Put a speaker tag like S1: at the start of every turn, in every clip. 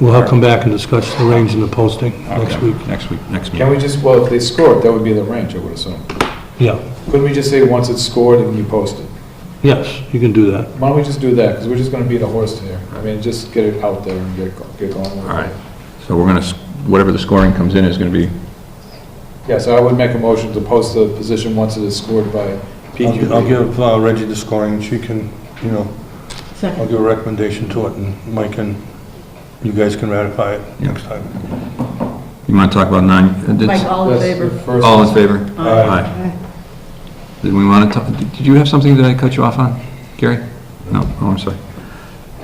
S1: We'll have, come back and discuss the range and the posting next
S2: Okay,
S1: week.
S2: Next week, next
S3: Can
S2: meeting.
S3: we just, well, if they score it, that would be the range, I would assume.
S1: Yeah,
S3: Couldn't we just say, once it's scored and you post it?
S1: yes, you can do that.
S3: Why don't we just do that, because we're just gonna beat a horse here. I mean, just get it out there and get, go- get going.
S2: All right. So we're going to, whatever the scoring comes in is going to be,
S3: Yeah, so I would make a motion to post the position once it is scored by
S4: I'll gi- I'll
S3: PQB.
S4: give uh, Reggie the scoring, and she can, you know, I'll
S5: Second.
S4: give a recommendation to it, and Mike and you guys can ratify it
S2: Yeah.
S4: next time.
S2: you want to talk about nine? uh, did-
S5: Mike, all in
S3: That's the
S5: favor?
S3: first-
S2: All in favor?
S5: Aye.
S2: Did we want to, talk? did you have something that I cut you off on, Gary? No, oh, I'm sorry.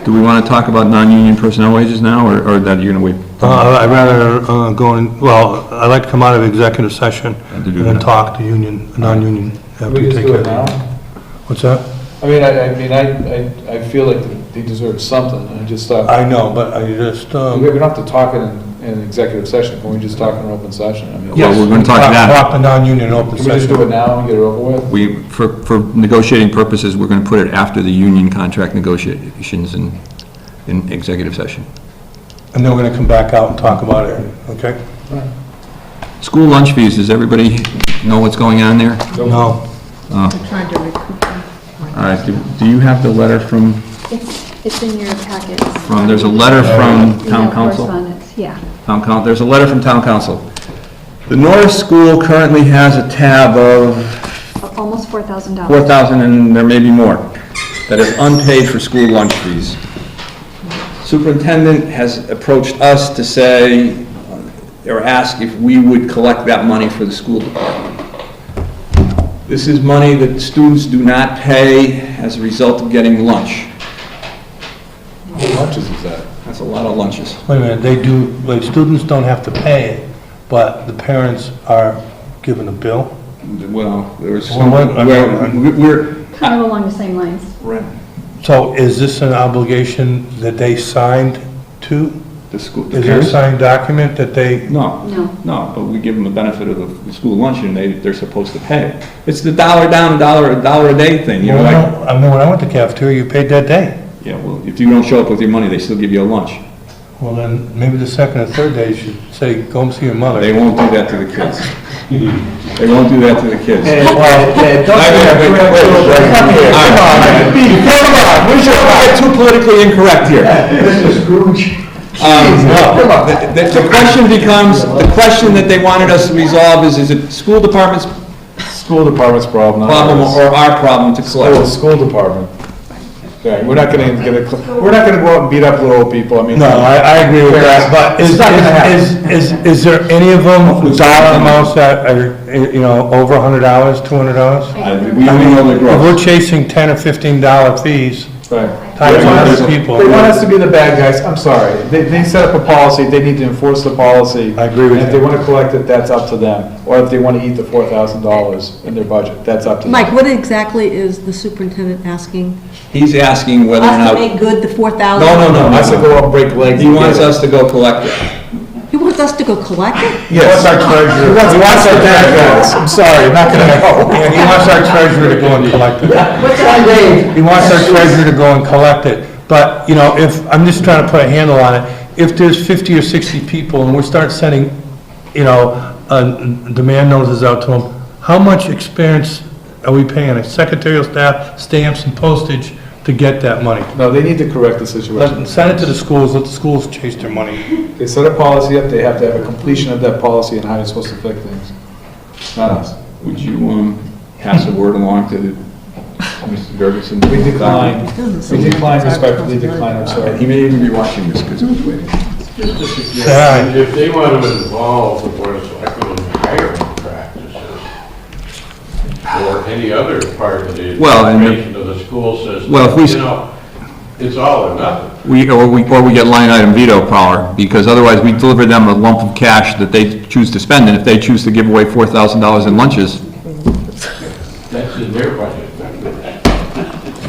S2: Do we want to talk about non-union personnel wages now, or or that you're going to wait?
S4: Uh, I'd rather uh, go in, well, I'd like to come out of executive session
S2: And
S4: and
S2: to do
S4: then
S2: that.
S4: talk to union, non-union.
S3: Can
S4: after
S3: we
S4: you
S3: just
S4: take
S3: do it
S4: care of
S3: now?
S4: What's that?
S3: I mean, I, I mean, I, I, I feel like they deserve something, and I just thought,
S4: I know, but I just, um,
S3: we don't have to talk in, in executive session, can we just talk in an open session? I mean,
S2: Yes. Well, we're gonna talk now.
S4: Talk to non-union in open
S3: Can we just do it
S4: session.
S3: now and get it over with?
S2: We, for, for negotiating purposes, we're going to put it after the union contract negotiations in, in executive session.
S4: And then we're gonna come back out and talk about it, okay?
S2: School lunch fees, does everybody know what's going on there?
S4: No,
S5: I'm trying to recoup. them.
S2: All right, do- do you have the letter from,
S6: It's, it's in your packet.
S2: from, Um, there's a letter from town council?
S6: Correspondence, yeah.
S2: Town coun, there's a letter from town council. The Norris School currently has a tab of
S6: Almost $4,000.
S2: four thousand, and there may be more, that is unpaid for school lunch fees. Superintendent has approached us to say, or ask if we would collect that money for the school department. This is money that students do not pay as a result of getting lunch.
S3: What lunches is that?
S2: That's a lot of lunches.
S4: wait a minute, they do, like, students don't have to pay, but the parents are given a bill?
S2: Well, there's,
S4: Well, what-
S2: we're,
S6: Kind of along the same lines.
S2: we're,
S4: So is this an obligation that they signed to?
S2: the school, the
S4: Is there a
S2: parents?
S4: signed document that they,
S2: No.
S6: No.
S2: No, but we give them the benefit of the- the school luncheon, they, they're supposed to pay. It's the dollar down, dollar, a dollar a day thing, you know, like,
S4: I mean, when I went to cafeteria, you paid that day.
S2: yeah, well, if you don't show up with your money, they still give you a lunch.
S4: Well, then, maybe the second or third day, you should say, go and see your mother.
S2: They won't do that to the kids. They won't do that to the kids. We should not get too politically incorrect here. Um, the- The the question becomes, the question that they wanted us to resolve is, is it school department's
S3: School department's problem. not
S2: problem
S3: ours.
S2: or our problem to
S3: School,
S2: collect?
S3: school department. Okay, we're not gonna get a, cl- we're not gonna go out and beat up little people, I mean.
S4: No, I, I agree with that, but is,
S3: It's not gonna happen.
S4: is, is, is there any of them, dollar amounts that are, you know, over a hundred dollars, two hundred dollars?
S2: I- We only know the
S4: If
S2: gross.
S4: we're chasing ten or fifteen dollar fees,
S3: Right.
S4: times a hundred people.
S3: They want us to be the bad guys, I'm sorry. They, they set up a policy, they need to enforce the policy.
S4: I agree with
S3: And if they
S4: you.
S3: wanna collect it, that's up to them. Or if they wanna eat the four thousand dollars in their budget, that's up to them.
S5: Mike, what exactly is the superintendent asking?
S2: He's asking whether or
S5: Us
S2: not.
S5: to make good the four thousand?
S2: No, no, no,
S3: I said
S2: no,
S3: go up and break
S2: no.
S3: legs.
S2: He
S3: and
S2: wants
S3: get it.
S2: us to go collect it.
S5: He wants us to go collect it?
S3: Yes. He wants he wants our bad guys, I'm sorry, not gonna go.
S4: Yeah, he wants our treasurer to go and collect it. He wants our treasurer to go and collect it. But, you know, if, I'm just trying to put a handle on it, if there's 50 or 60 people and we start sending, you know, uh, demand notices out to them, how much expense are we paying a secretarial staff, stamps and postage to get that money?
S3: No, they need to correct the situation.
S4: Let- Send it to the schools, let the schools chase their money.
S3: They set a policy up, they have to have a completion of that policy and how you're supposed to fix things. Not us.
S2: Would you, um, pass the word along to Mr. Gergensen?
S3: We decline, we decline respectfully, decline, I'm
S2: And Uh, he
S3: sorry.
S2: may even be watching this, because it was waiting.
S4: Yeah.
S7: If they want to involve the board of selectmen in hiring practices or any other part of the
S2: Well, and the-
S7: administration of the school system,
S2: Well, if we s-
S7: you know, it's all or nothing.
S2: We, or we, or we get line item veto power, because otherwise we deliver them a lump of cash that they choose to spend, and if they choose to give away four thousand dollars in lunches,
S7: That's in their budget.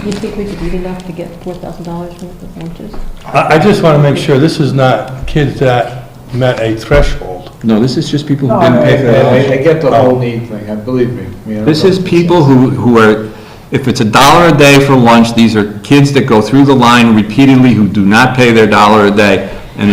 S5: You think we could eat enough to get four thousand dollars worth of lunches?
S4: I, I just want to make sure this is not kids that met a threshold.
S2: no, this is just people who
S3: I,
S2: didn't pay for their lunch.
S3: I- I get the whole need thing, I believe me. I mean, I don't
S2: This
S3: know.
S2: is people who, who are, if it's a dollar a day for lunch, these are kids that go through the line repeatedly who do not pay their dollar a day.